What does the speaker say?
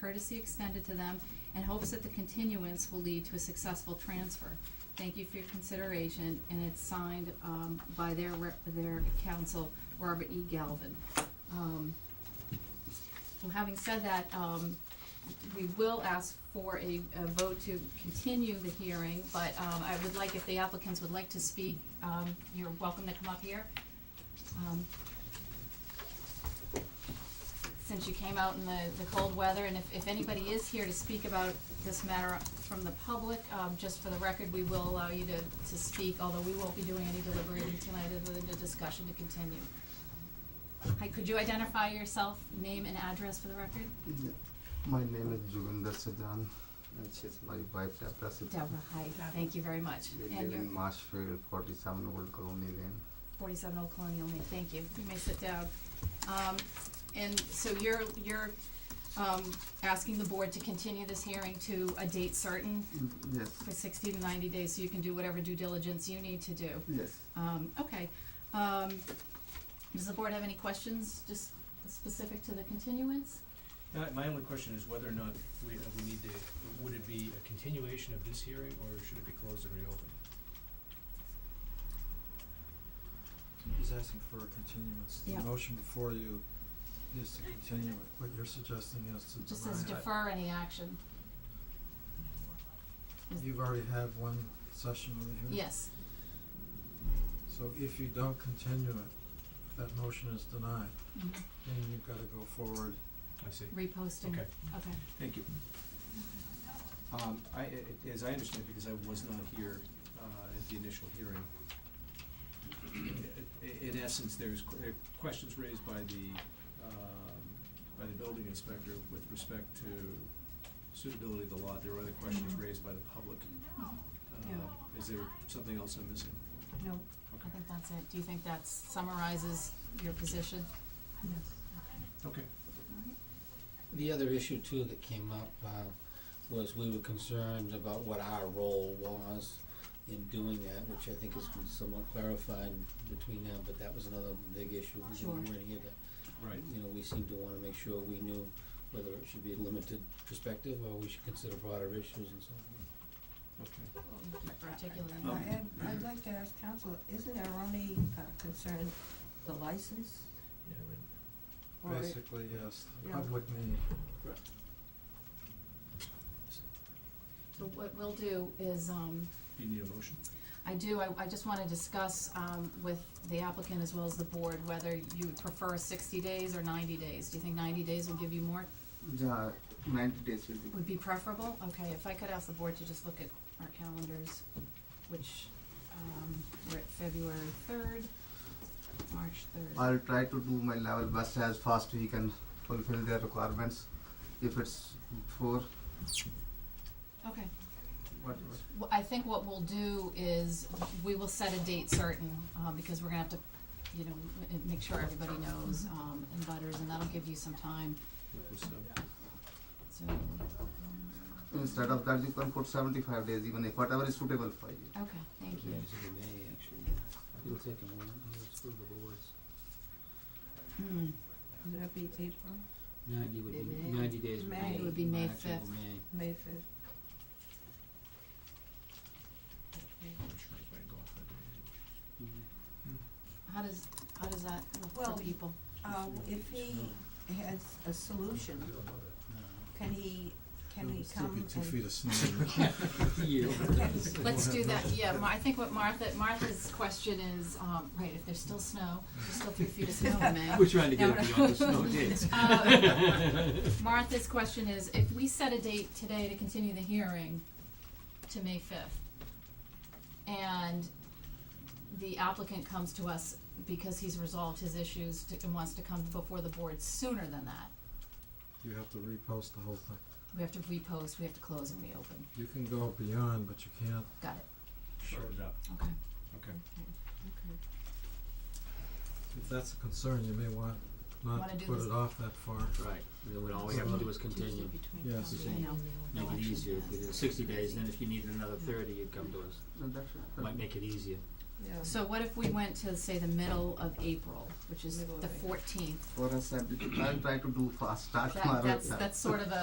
courtesy extended to them and hopes that the continuance will lead to a successful transfer. Thank you for your consideration, and it's signed, um, by their rep, their counsel, Robert E. Galvin. Um, so having said that, um, we will ask for a, a vote to continue the hearing, but, um, I would like, if the applicants would like to speak, um, you're welcome to come up here. Um, Since you came out in the, the cold weather, and if, if anybody is here to speak about this matter from the public, um, just for the record, we will allow you to, to speak, although we won't be doing any deliberating tonight other than the discussion to continue. Hi, could you identify yourself, name and address for the record? Yeah. My name is Juvinder Sajan, and she's my wife Deborah Deborah, Sajan. hi, thank you very much. We And live you're in Marshfield, forty-seven Old Colony Lane. forty-seven Old Colonial Main, thank you, you may sit down. Um, and so you're, you're, um, asking the board to continue this hearing to a date certain Mm, Yes, for sixty to ninety days, so you can do whatever due diligence you need to do. yes. Um, okay, um, does the board have any questions, just specific to the continuance? Now, Uh, my only question is whether or not we, uh, we need to, would it be a continuation of this hearing, or should it be closed and reopened? He's asking for a continuance. Yeah. The motion before you is to continue it. What you're suggesting is to deny. Just says it. defer any action, You've already had one session with the hearing. yes, So if you don't continue it, that motion is denied, Mhm. then you've gotta go forward. I see. reposting, Okay. okay, Thank you. Um, I, I- as I understand, because I was not here, uh, at the initial hearing, i- i- in essence, there's que- there are questions raised by the, um, by the building inspector with respect to suitability of the lot. There were other questions Mhm. raised by the public. Yeah. Uh, is there something else I'm missing? no, I Okay. think that's it, do you think that summarizes your position? Yes. Okay. The other issue too that came up uh, was we were concerned about what our role was in doing that, which I think has been somewhat clarified between now, but that was another big issue. when Sure. We weren't here to, Right. you know, we seemed to wanna make sure we knew whether it should be a limited perspective or we should consider broader issues and so on. Okay. Particularly. Um, I'd, I'd like to ask council, isn't our only uh, concern the license? Yeah, right. or- Basically, yes, the Yeah. public need. So what we'll do is, um, Do you need a motion? I do, I, I just wanna discuss, um, with the applicant as well as the board, whether you would prefer sixty days or ninety days. Do you think ninety days will give you more, Yeah, ninety days will be. would be preferable? Okay, if I could ask the board to just look at our calendars, which, um, we're at February third, March third. I'll try to do my level best as fast we can fulfill their requirements. If it's for Okay, whatever. Well, I think what we'll do is, we will set a date certain, um, because we're gonna have to, you know, m- make sure everybody knows, um, and butters, and that'll give you some time Because, uh, So, um, Instead of that, you can put seventy-five days, even if whatever is suitable for you. okay, thank you. Maybe it's in May, actually. It'll take a moment, it's for the boards. Hmm, Would that be April, Ninety would Maybe be, ninety days would be. May. It would be May March or 5th. May. May fifth? I'm sure it's very golf that day. how does, how does that look Well, for people? Uh, if he has a solution, No. can he, can he come and? of snow. You. Let's do that, yeah, Mar- I think what Martha, Martha's question is, um, right, if there's still snow, there's still three feet of snow in May. We're trying to get No, it no. beyond the snow days. Um, Martha's question is, if we set a date today to continue the hearing to May fifth, and the applicant comes to us because he's resolved his issues to, and wants to come before the board sooner than that, You have to repost the whole thing. we have to repost, we have to close and reopen, You can go beyond, but you can't got it, Shorten it up, okay. okay. Okay. If that's a concern, you may want not Wanna to do put this- it off that far. Right, then when all we have to do is continue, Yes. I know, make it easier, if we did sixty days, then if you needed another thirty, you'd come to us, So that's it. might make it easier. Yeah. so what if we went to, say, the middle of April, which is Middle of the April. fourteenth? For us, I'll I'll try to do fast, start tomorrow. That, that's, itself. that's sort of a,